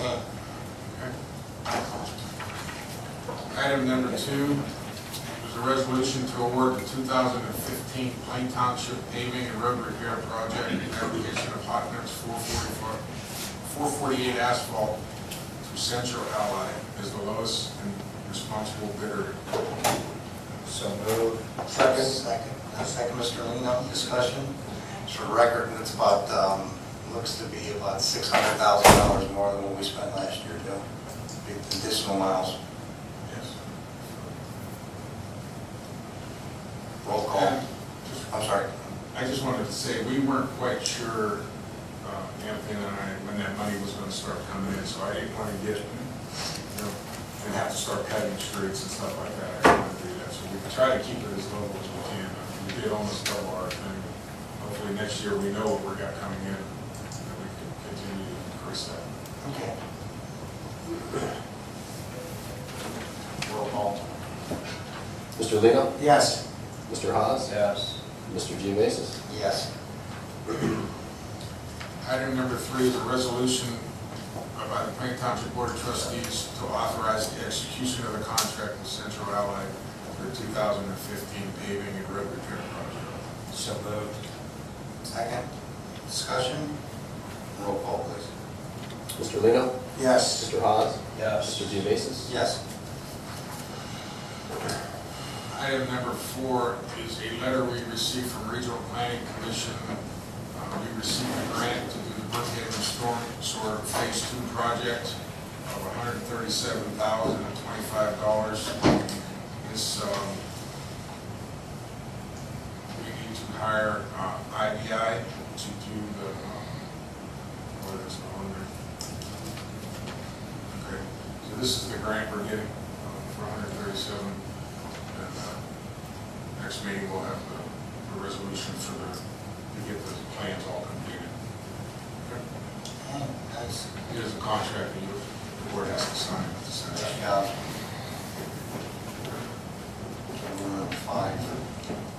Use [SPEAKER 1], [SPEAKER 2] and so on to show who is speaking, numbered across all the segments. [SPEAKER 1] Okay. Item number two is a resolution to award the 2015 Plain Township paving and road repair project in application of hot mix 444 448 asphalt to Central Ally as the lowest and responsible bidder.
[SPEAKER 2] So moved.
[SPEAKER 3] Second.
[SPEAKER 2] Second, Uh, second, Mr. Lino, discussion. It's for record, and it's about, um, looks to be about six hundred thousand dollars more than what we spent last year, Joe. The Additional miles,
[SPEAKER 1] Yes.
[SPEAKER 2] roll call.
[SPEAKER 1] And just
[SPEAKER 2] I'm sorry.
[SPEAKER 1] I just wanted to say, we weren't quite sure, uh, Anthony and I, when that money was gonna start coming in, so I didn't wanna get, you know, and have to start cutting streets and stuff like that. I didn't wanna do that, so we try to keep it as low as we can. We did almost double our thing. Hopefully next year, we know what we got coming in, and we can continue to increase that.
[SPEAKER 2] Okay. Roll call.
[SPEAKER 3] Mr. Lino?
[SPEAKER 2] Yes.
[SPEAKER 3] Mr. Haas?
[SPEAKER 4] Yes.
[SPEAKER 3] Mr. Geovasis?
[SPEAKER 2] Yes.
[SPEAKER 1] Item number three is a resolution by the Plain Township Board of Trustees to authorize the execution of the contract with Central Ally for the 2015 paving and road repair project.
[SPEAKER 2] So moved. Second, discussion. Roll call, please.
[SPEAKER 3] Mr. Lino?
[SPEAKER 2] Yes.
[SPEAKER 3] Mr. Haas? Mr.
[SPEAKER 4] Yes.
[SPEAKER 3] Geovasis?
[SPEAKER 2] Yes.
[SPEAKER 1] Item number four is a letter we received from Regional Planning Commission. Uh, We received a grant to do the Brookhaven Storm Sewer Phase Two project of $137,025. This, um, we need to hire uh, IBI to do the, um, what is it, owner? Okay, so this is the grant we're getting um, for 137. And uh, next meeting, we'll have the the resolution for the, to get the plans all completed.
[SPEAKER 2] That's,
[SPEAKER 1] It is a contract that you, the board has to sign at the Senate.
[SPEAKER 2] yeah. Number five.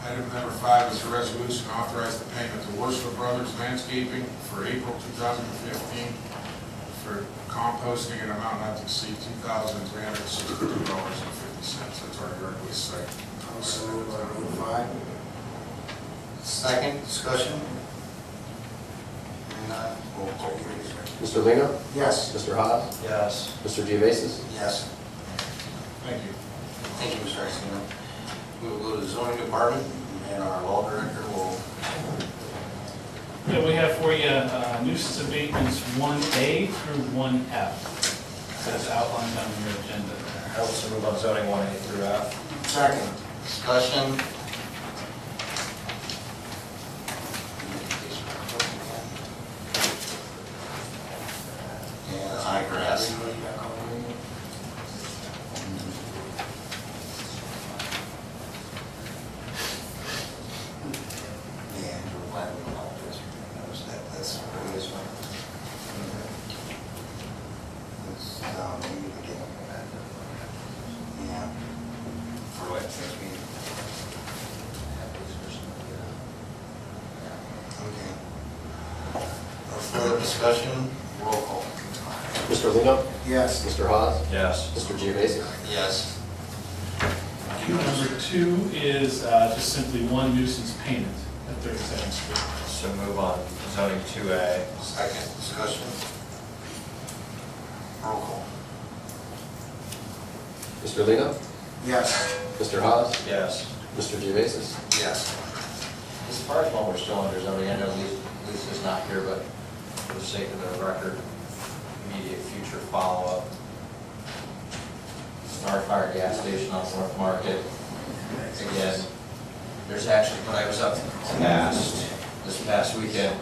[SPEAKER 1] Item number five is a resolution authorize the payment to Worcester Brothers Landscaping for April 2015 for composting an amount not to exceed $2,362.50. That's our yard waste site.
[SPEAKER 2] Second, discussion. Hearing none, roll call, please.
[SPEAKER 3] Mr. Lino?
[SPEAKER 2] Yes.
[SPEAKER 3] Mr. Haas?
[SPEAKER 4] Yes.
[SPEAKER 3] Mr. Geovasis?
[SPEAKER 2] Yes.
[SPEAKER 1] Thank you.
[SPEAKER 2] Thank you, Mr. Iacino. We will go to the zoning department, and our law director will
[SPEAKER 5] Yeah, we have for you uh, nuisance abatements 1A through 1F. That's outlined on your agenda there.
[SPEAKER 4] I also move on zoning one A through F.
[SPEAKER 2] Second. Discussion. And I grass. And we're planning on all this, you notice that, that's where it is. It's, um, maybe the game. Yeah. For what, since we have this person, yeah. Okay. No Further discussion, roll call.
[SPEAKER 3] Mr. Lino?
[SPEAKER 2] Yes.
[SPEAKER 3] Mr. Haas?
[SPEAKER 4] Yes.
[SPEAKER 3] Mr. Geovasis?
[SPEAKER 2] Yes.
[SPEAKER 5] Item Number two is uh, just simply one nuisance payment at 37th Street.
[SPEAKER 4] So move on zoning two A.
[SPEAKER 2] Second discussion. Roll call.
[SPEAKER 3] Mr. Lino?
[SPEAKER 2] Yes.
[SPEAKER 3] Mr. Haas?
[SPEAKER 4] Yes.
[SPEAKER 3] Mr. Geovasis?
[SPEAKER 2] Yes.
[SPEAKER 4] As far as while we're still under zoning, I know Lisa- Lisa's not here, but for the sake of the record, immediate future follow-up. Star Fire gas station on North Market. Again, there's actually, when I was up past, this past weekend,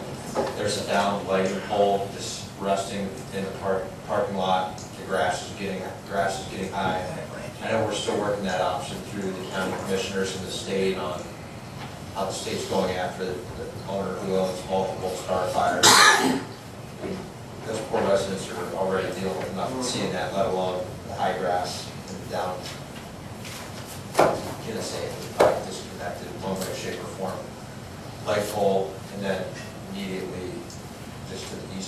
[SPEAKER 4] there's a downed lighting pole just resting in the park, parking lot. The grass is getting, grass is getting high. I know we're still working that option through the county commissioners and the state on how the state's going after the the owner who owns multiple Starfires. Those poor residents are already dealing with nothing, seeing that, let alone